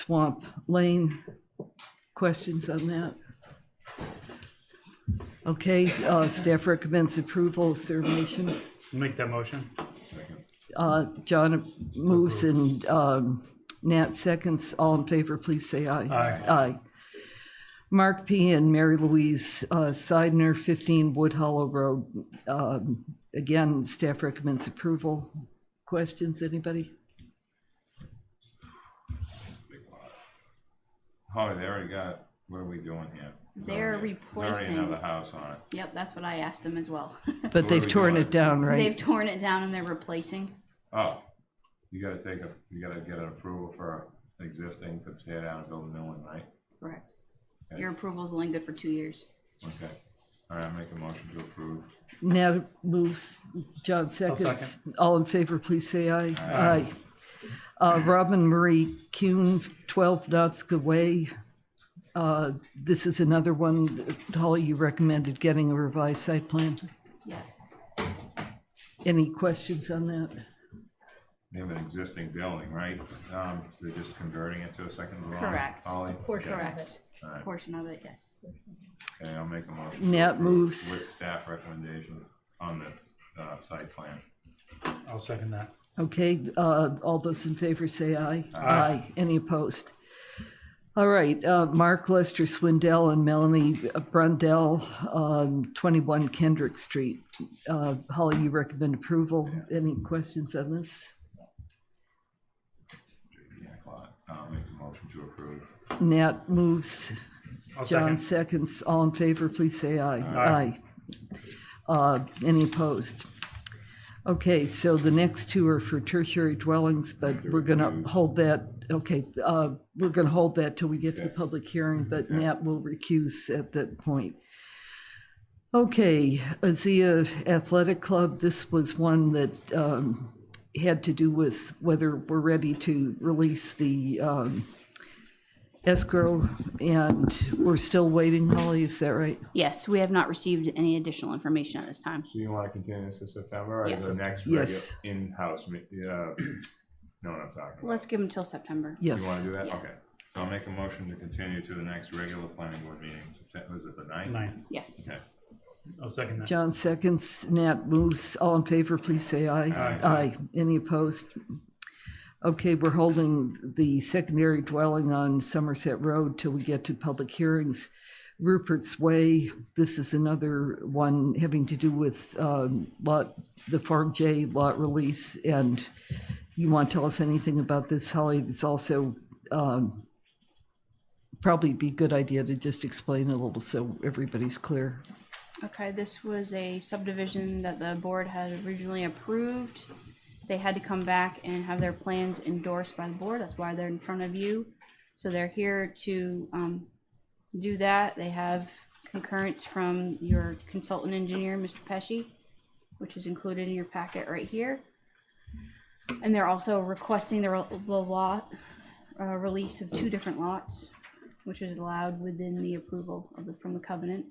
Swamp Lane. Questions on that? Okay, uh, staff recommends approval. Is there a motion? Make that motion. Uh, John moves and um, Nat seconds. All in favor, please say aye. Aye. Mark P. and Mary Louise uh, Seidner, 15 Wood Hollow Road. Um, Again, staff recommends approval. Questions, anybody? Holly, they already got, what are Oh, we doing here? There's They're already- there's replacing- Already another house on it. Yep, that's what I asked them as well. But Where are they've we torn going? it down, They've right? torn it down and they're replacing. Oh, you gotta take a, you gotta get an approval for existing to tear down and build a new one, right? Correct. Okay. Your approval's only good for two years. Okay, all right, I make a motion to approve. Nat moves, John seconds. All in favor, please say aye. Aye. Uh, Robin Marie Kuhn, 12 Knobska Way. Uh, This is another one, that, Holly, you recommended getting a revised site plan. Yes. Any questions on that? They have an existing building, right? Um, they're just converting it to a second dwelling? Correct. Holly? portion of it. Correct. All right, Portion of it, yes. okay, I'll make a motion. to Nat approve moves. With staff recommendation on the, uh, site plan. I'll second that. Okay, uh, all those in favor say aye. Aye. Any opposed? All right, uh, Mark Lester Swindell and Melanie Brundell, um, 21 Kendrick Street. Uh, Holly, you recommend approval. Any questions on this? Yeah, Clyde, I'll make a motion to approve. Nat moves, I'll John second. seconds. All in favor, please say aye. Aye. Aye. Uh, Any opposed? Okay, so the next two are for tertiary dwellings, but we're gonna hold that, okay, uh, we're gonna hold that till we get to the public hearing, but Nat will recuse at that point. Okay, Azia Athletic Club, this was one that um, had to do with whether we're ready to release the um, escrow, and we're still waiting, Holly, is that right? Yes, we have not received any additional information at this time. So you want to continue this to September or the Yes. next regular Yes. in-house, me- uh, know what I'm talking about? Let's give them till September. Yes. You want to do that? Yeah. Okay. So I'll make a motion to continue to the next regular planning board meeting, September, is it the ninth? Nine. Yes. Okay. I'll second that. John seconds, Nat moves. All in favor, please say aye. Aye. Any opposed? Okay, we're holding the secondary dwelling on Somerset Road till we get to public hearings. Rupert's Way, this is another one having to do with um, lot, the Farm J lot release. And you want to tell us anything about this, Holly? It's also um, probably be a good idea to just explain a little so everybody's clear. Okay, this was a subdivision that the board had originally approved. They had to come back and have their plans endorsed by the board. That's why they're in front of you. So they're here to um, do that. They have concurrence from your consultant engineer, Mr. Pesci, which is included in your packet right here. And they're also requesting the re- the lot, uh, release of two different lots, which is allowed within the approval of the, from the covenant.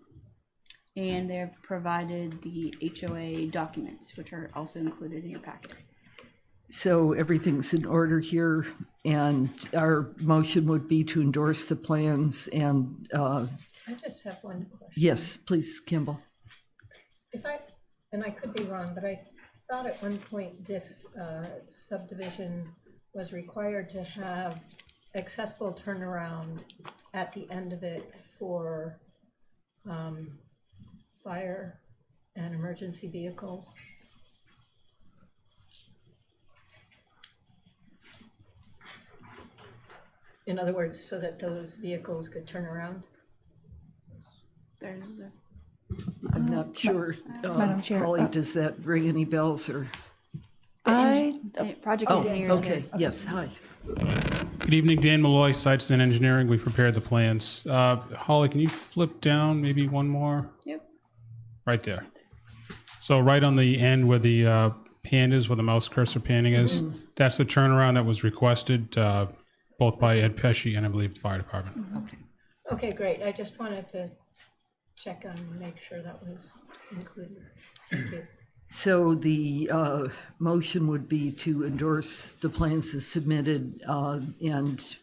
And they've provided the HOA documents, which are also included in your packet. So everything's in order here, and our motion would be to endorse the plans and, uh, I just have one question. yes, please, Kimball. If I, and I could be wrong, but I thought at one point this uh, subdivision was required to have accessible turnaround at the end of it for um, fire and emergency vehicles. In other words, so that those vehicles could turn around? There's a, I'm not sure, uh, Madam Chair, Holly, uh, does that ring any bells or? I, the uh, project Oh, engineers. okay, yes, hi. Good evening, Dan Malloy, Sites and Engineering. We prepared the plans. Uh, Holly, can you flip down maybe one more? Yep. Right there. So right on the end where the uh, pan is, where the mouse cursor panning is, that's the turnaround that was requested uh, both by Ed Pesci and I believe the fire department. Okay, great. I just wanted to check on, make sure that was included. Thank you. So the uh, motion would be to endorse the plans as submitted uh, and